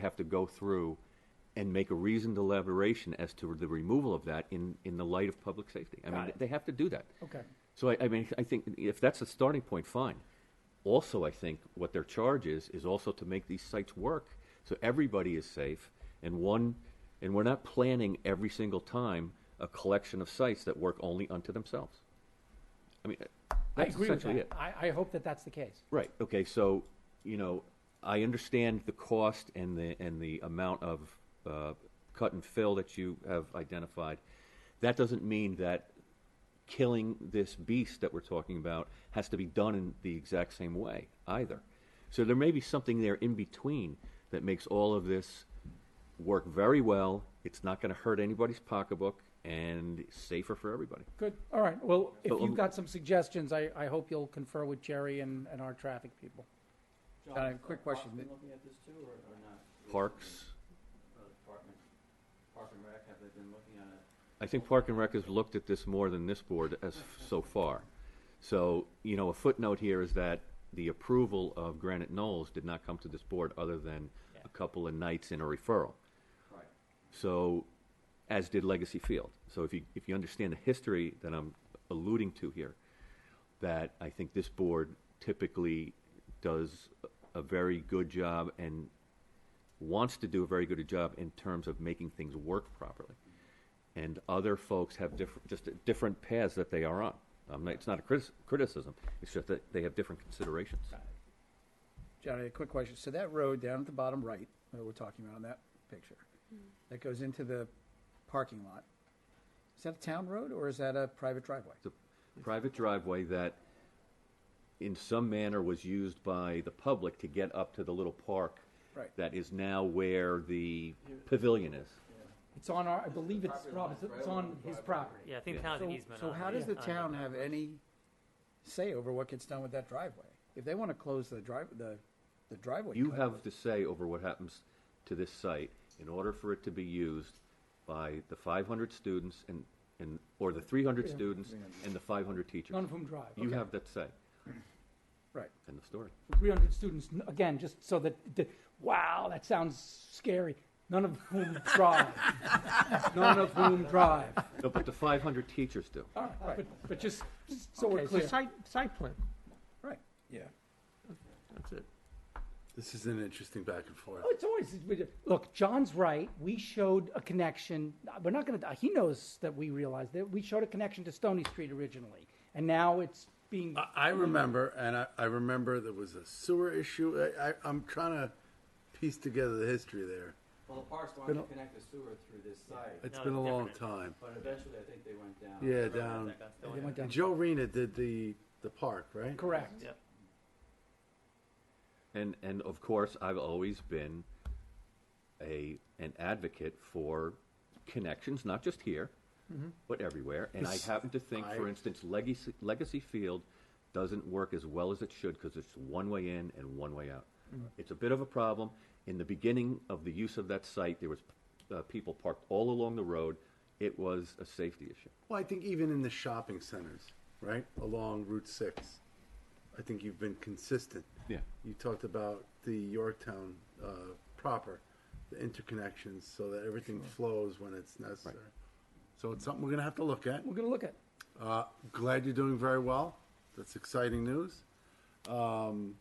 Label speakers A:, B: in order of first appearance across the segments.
A: have to go through and make a reasoned elaboration as to the removal of that in, in the light of public safety. I
B: Got
A: mean,
B: it.
A: they have to do that.
B: Okay.
A: So I, I mean, I think if that's a starting point, fine. Also, I think what their charge is, is also to make these sites work so everybody is safe and one, and we're not planning every single time a collection of sites that work only unto themselves. I mean,
B: I
A: that's
B: agree with
A: essentially
B: that.
A: it.
B: I, I hope that that's the case.
A: Right, okay, so, you know, I understand the cost and the, and the amount of, uh, cut and fill that you have identified. That doesn't mean that killing this beast that we're talking about has to be done in the exact same way either. So there may be something there in between that makes all of this work very well. It's not gonna hurt anybody's pocketbook and safer for everybody.
B: Good, all right, well, if
A: So,
B: you've
A: um,
B: got some suggestions, I, I hope you'll confer with Jerry and, and our traffic people.
C: John,
B: Uh,
C: is
B: quick
C: the
B: question.
C: Parks been looking at this too, or, or not?
A: Parks,
C: Uh, Department, Park and Rec, have they been looking at it?
A: I think Park and Rec has looked at this more than this board as, so far. So, you know, a footnote here is that the approval of Granite Knolls did not come to this board other than a couple of nights in a referral.
C: Right.
A: So, as did Legacy Field. So if you, if you understand the history that I'm alluding to here, that I think this board typically does a very good job and wants to do a very good job in terms of making things work properly. And other folks have different, just different paths that they are on. Um, it's not a critis- criticism, it's just that they have different considerations.
D: Johnny, a quick question. So that road down at the bottom right, that we're talking about on that picture, that goes into the parking lot, is that a town road or is that a private driveway?
A: It's a private driveway that in some manner was used by the public to get up to the little park.
D: Right.
A: That is now where the pavilion is.
B: It's on our, I believe it's Rob, it's- it's on his property.
E: Yeah, I think the town has an easement
D: So
E: on
D: how
E: it.
D: does the
E: Uh, Yeah.
D: town have any say over what gets done with that driveway? If they want to close the drive, the, the driveway.
A: You
D: cut,
A: have to say over what happens to this site in order for it to be used by the five hundred students and, and, or the three hundred students and the five hundred teachers.
B: None of whom drive.
A: You
B: Okay.
A: have that say.
D: Right.
A: End of story.
B: 300 students, n- again, just so that, the- wow, that sounds scary. None of whom drive. None of whom drive.
A: No, but the five hundred teachers do.
B: All right, but, but just, just so we're
E: Okay, so
B: clear.
E: site, site plan,
D: Right.
F: Yeah,
E: that's it.
F: this is an interesting back and forth.
B: Oh, it's always we- look. John's right. We showed a connection. We're not going to. He knows that we realized that we showed a connection to Stony Street originally, and now it's being.
F: I, I remember, and I, I remember there was a sewer issue. I, I, I'm trying to piece together the history there.
C: Well, the Parks wanted to connect the sewer through this site,
F: It's
E: No,
F: been a
E: it's
F: long
E: different.
F: time.
C: but eventually I think they went down.
F: Yeah, down.
B: they went down.
F: Joe Rena did the the park, right?
B: Correct.
E: Yep.
A: And and of course, I've always been a an advocate for connections, not just here, but everywhere. And I
F: This-
A: happen to think, for
F: I-
A: instance, Legacy Legacy Field doesn't work as well as it should because it's one way in and one way out. It's a bit of a problem. In the beginning of the use of that site, there was uh, people parked all along the road. It was a safety issue.
F: Well, I think even in the shopping centers, right, along Route Six, I think you've been consistent.
A: Yeah.
F: You talked about the Yorktown uh, proper, the interconnections, so that everything flows when it's necessary. So it's something we're gonna have to look at.
B: We're going to look at.
F: Uh, glad you're doing very well. That's exciting news. Um,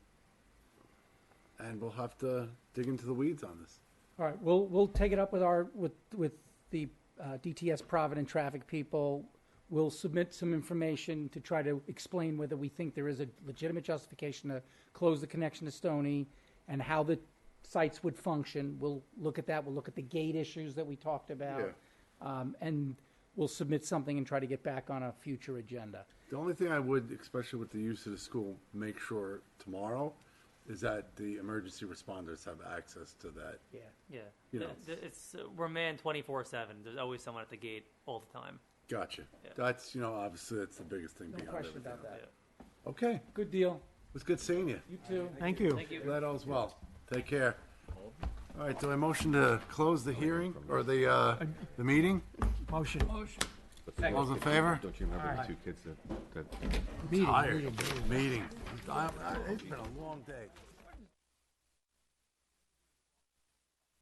F: and we'll have to dig into the weeds on this.
B: All right. We'll we'll take it up with our with with the uh, DTS Provident traffic people. We'll submit some information to try to explain whether we think there is a legitimate justification to close the connection to Stony and how the sites would function. We'll look at that. We'll look at the gate issues that we talked about. Um, and we'll submit something and try to get back on a future agenda.
F: The only thing I would, especially with the use of the school, make sure tomorrow is that the emergency responders have access to that.
B: Yeah.
E: Yeah.
F: You
E: The-
F: know.
E: the- It's, uh, we're manned twenty-four seven. There's always someone at the gate all the time.
F: Gotcha.
E: Yeah.
F: That's, you know, obviously that's the biggest thing
B: No
F: behind
B: question
F: everything.
B: about that.
F: Okay. It
B: Good deal.
F: was good seeing you.
B: You too.
E: Thank you. Thank you.
F: Glad all's well. Take care. All right, do I motion to close the hearing or the, uh, the meeting?
G: Motion.
A: But the-
F: All's in favor?
A: Don't you remember the two kids that, that
F: Tired. Meeting. I- I- It's been a long day.